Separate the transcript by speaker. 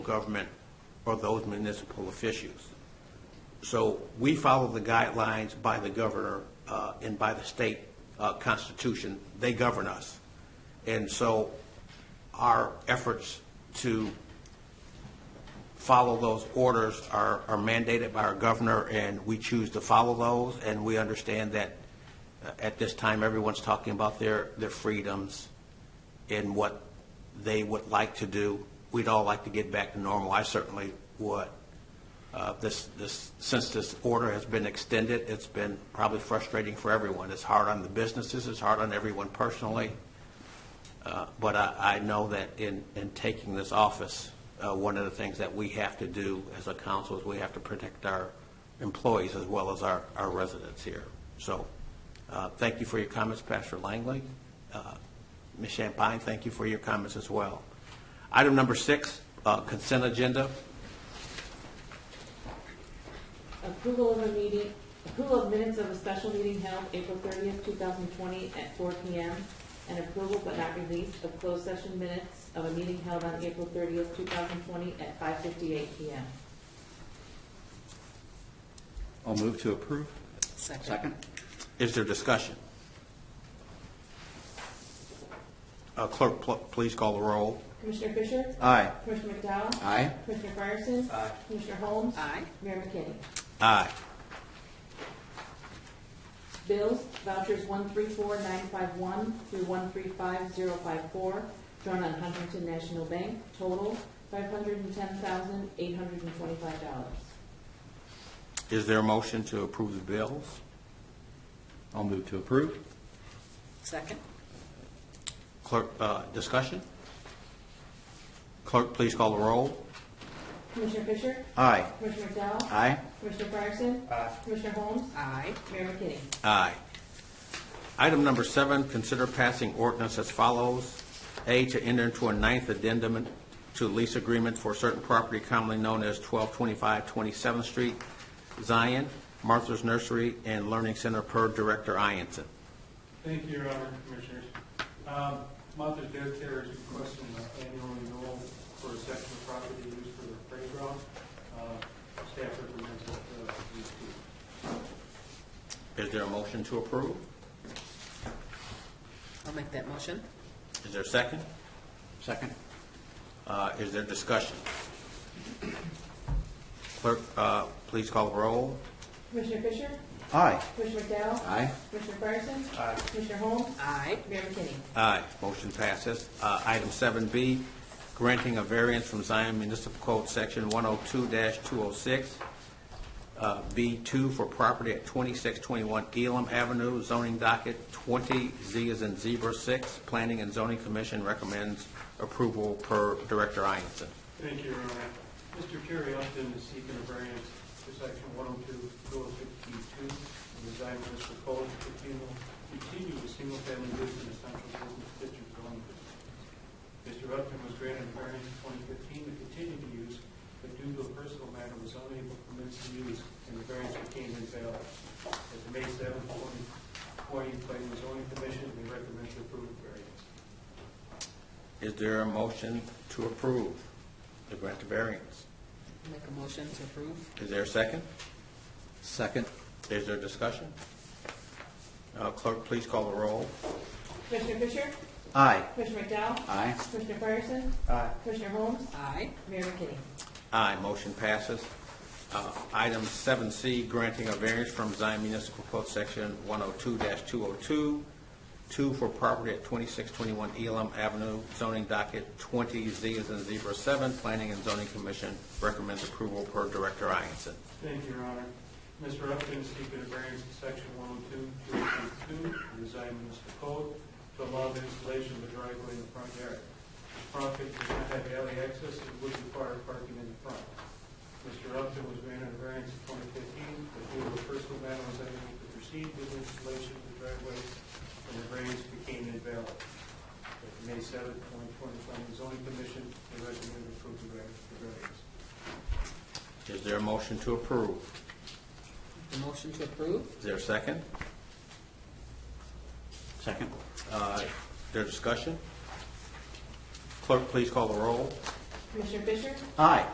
Speaker 1: government or those municipal officials. So we follow the guidelines by the governor uh, and by the state uh, constitution. They govern us. And so our efforts to follow those orders are are mandated by our governor, and we choose to follow those. And we understand that uh, at this time, everyone's talking about their, their freedoms and what they would like to do. We'd all like to get back to normal. I certainly would. Uh, This, this, since this order has been extended, it's been probably frustrating for everyone. It's hard on the businesses, it's hard on everyone personally. Uh, But I, I know that in, in taking this office, uh, one of the things that we have to do as a council is we have to protect our employees as well as our, our residents here. So, uh, thank you for your comments, Pastor Langley. Uh, Ms. Champagne, thank you for your comments as well. Item number six, uh, consent agenda.
Speaker 2: Approval of a meeting, approval of minutes of a special meeting held April thirtieth, two thousand twenty, at four P M. And approval but not release of closed session minutes of a meeting held on April thirtieth, two thousand twenty, at five fifty-eight P M.
Speaker 3: I'll move to approve. Second.
Speaker 1: Is there discussion? Uh, Clerk, pl- please call the roll.
Speaker 2: Commissioner Fisher?
Speaker 3: Aye.
Speaker 2: Commissioner McDowell?
Speaker 3: Aye.
Speaker 2: Commissioner Fryerson?
Speaker 1: Aye.
Speaker 2: Commissioner Holmes?
Speaker 4: Aye.
Speaker 2: Mayor McKinney?
Speaker 1: Aye.
Speaker 2: Bills, vouchers one three four nine five one through one three five zero five four, drawn on Huntington National Bank, total five hundred and ten thousand, eight hundred and twenty-five dollars.
Speaker 1: Is there a motion to approve the bills?
Speaker 3: I'll move to approve.
Speaker 4: Second?
Speaker 1: Clerk, uh, discussion? Clerk, please call the roll.
Speaker 2: Commissioner Fisher?
Speaker 3: Aye.
Speaker 2: Commissioner McDowell?
Speaker 3: Aye.
Speaker 2: Commissioner Fryerson? Commissioner Holmes?
Speaker 4: Aye.
Speaker 2: Mayor McKinney?
Speaker 1: Aye. Item number seven, consider passing ordinance as follows. A, to enter into a ninth addendum to lease agreement for certain property commonly known as 1225 27th Street, Zion, Martha's Nursery, and Learning Center per Director Ianson.
Speaker 5: Thank you, Your Honor, Commissioners. Um, Martha's Dev Care is requesting an annual renewal for a section of property used for the playground. Uh, Staff recommends that uh, we do.
Speaker 1: Is there a motion to approve?
Speaker 4: I'll make that motion.
Speaker 1: Is there a second?
Speaker 3: Second.
Speaker 1: Uh, Is there discussion? Clerk, uh, please call the roll.
Speaker 2: Commissioner Fisher?
Speaker 3: Aye.
Speaker 2: Commissioner McDowell?
Speaker 3: Aye.
Speaker 2: Commissioner Fryerson? Commissioner Holmes?
Speaker 4: Aye.
Speaker 2: Mayor McKinney?
Speaker 1: Aye, motion passes. Uh, Item 7B, granting a variance from Zion Municipal Code Section 102-206, uh, B2 for property at 2621 Elam Avenue, zoning docket 20Z as in zebra 6. Planning and Zoning Commission recommends approval per Director Ianson.
Speaker 5: Thank you, Your Honor. Mr. Terry Upton is seeking a variance for section 102, 252 of the Zion Municipal Code to continue- continue the single-family use in essential business district zoning. Mr. Upton was granted a variance in 2015 to continue to use, but due to a personal matter was unable to commence the use, and the variance became invalid. At the May 7, 2020, Planning and Zoning Commission, we recommend to approve the variance.
Speaker 1: Is there a motion to approve the grant of variance?
Speaker 4: Make a motion to approve.
Speaker 1: Is there a second?
Speaker 3: Second.
Speaker 1: Is there discussion? Uh, Clerk, please call the roll.
Speaker 2: Commissioner Fisher?
Speaker 3: Aye.
Speaker 2: Commissioner McDowell?
Speaker 3: Aye.
Speaker 2: Commissioner Fryerson? Commissioner Holmes?
Speaker 4: Aye.
Speaker 2: Mayor McKinney?
Speaker 1: Aye, motion passes. Uh, Item 7C, granting a variance from Zion Municipal Code Section 102-202, 2 for property at 2621 Elam Avenue, zoning docket 20Z as in zebra 7, Planning and Zoning Commission recommends approval per Director Ianson.
Speaker 5: Thank you, Your Honor. Mr. Upton is seeking a variance in section 102, 282 of the Zion Municipal Code to allow the installation of a driveway in the front yard. This property does not have alley access and would require parking in the front. Mr. Upton was granted a variance in 2015, but due to a personal matter was unable to proceed with the installation of the driveway, and the variance became invalid. At the May 7, 2020, Planning and Zoning Commission, they recommend approval of the variance.
Speaker 1: Is there a motion to approve?
Speaker 4: The motion to approve.
Speaker 1: Is there a second?
Speaker 3: Second.
Speaker 1: Uh, Is there discussion? Clerk, please call the roll.
Speaker 6: Commissioner Fisher?
Speaker 2: Aye.